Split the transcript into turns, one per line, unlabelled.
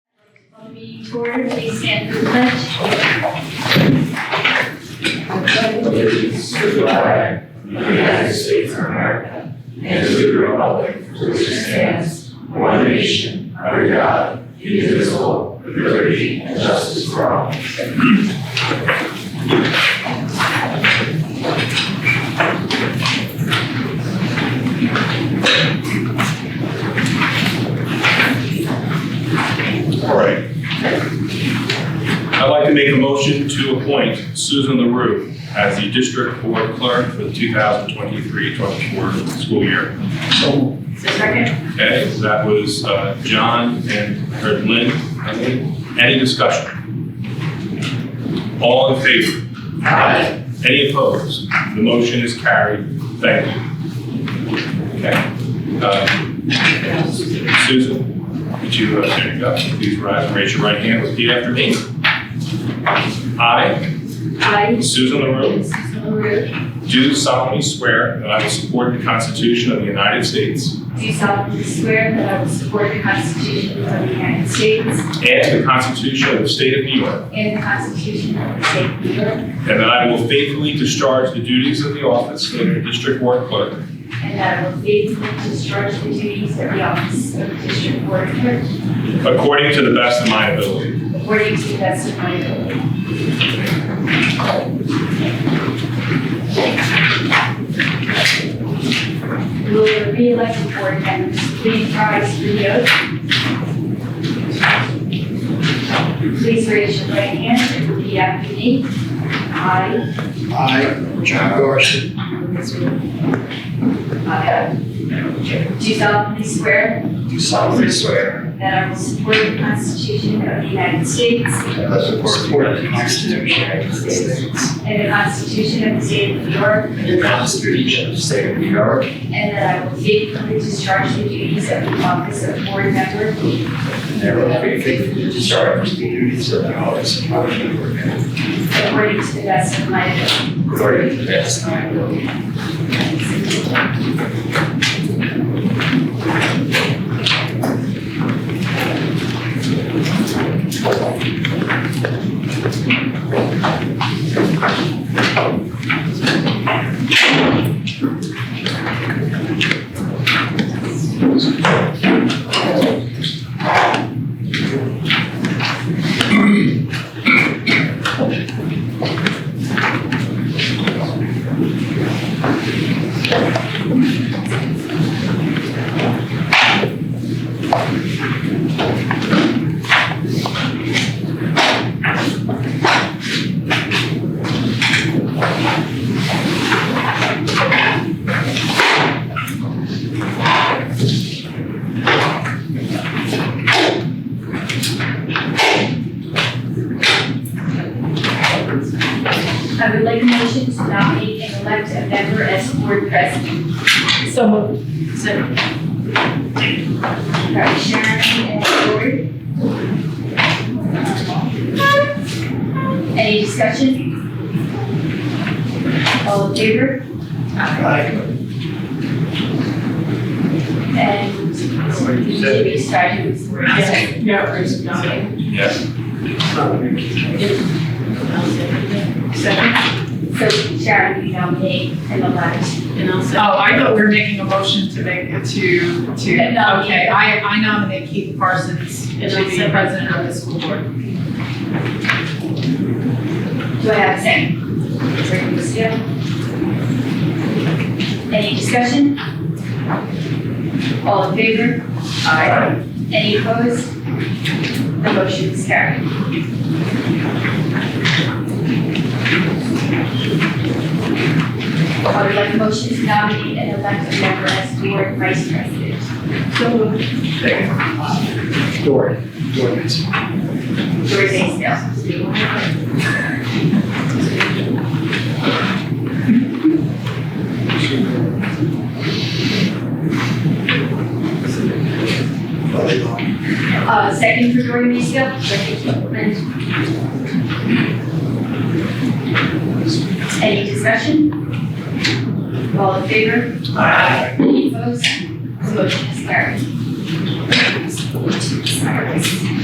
meeting to order, please stand for the pledge.
allegiance to the flag of the United States of America and to the republic for which it stands, one nation, under God, indivisible, with liberty and justice for all.
All right. I'd like to make a motion to appoint Susan LaRue as the district board clerk for the 2023-24 school year.
Second.
Okay, so that was uh, John and or Lynn, I think. Any discussion? All in favor? Aye. Any opposed? The motion is carried. Thank you. Okay. Uh, Susan, would you uh, stand up? Please rise and raise your right hand. Repeat after me. I,
I,
Susan LaRue,
Susan LaRue,
do solemnly swear that I will support the Constitution of the United States
do solemnly swear that I will support the Constitution of the United States
and the Constitution of the State of New York,
and the Constitution of the State of New York,
And that I will faithfully discharge the duties of the office of the district board clerk
and that I will faithfully discharge the duties of the office of District Board Clerk
according to the best of my ability.
according to the best of my ability. Will the re-elected board members please rise for the oath? Please raise your right hand and repeat after me. I,
I, John Garson,
uh, do solemnly swear
do solemnly swear
that I will support the Constitution of the United States
that I will support the Constitution of the United States
and the Constitution of the State of New York
and the Constitution of the State of New York,
And that I will faithfully discharge the duties of the office of board member
and that I will faithfully discharge the duties of the office of board member
according to the best of my ability.
according to the best of my ability.
I would like a motion to nominate and elect a member as board president.
So moved.
So. Right, Sharon and Lori. Any discussion? All in favor?
I,
And Jimmy started with board president.
Yeah, raise your hand.
Yes.
Second,
So Sharon, you nominate and elect.
oh, I thought we were making a motion to make, to, to,
No.
okay, I, I nominate Keith Parsons to be
And I second.
president of the school board.
Do I have a second? Second, Ms. Gill. Any discussion? All in favor? Aye. Any opposed? The motion is carried. I would like a motion to nominate and elect a member as board vice president.
So moved.
Dory, Dory Mason.
Doris A. Sale. Uh, second for Dory A. Sale. Second. Any discussion? All in favor? Aye. Any opposed? The motion is carried.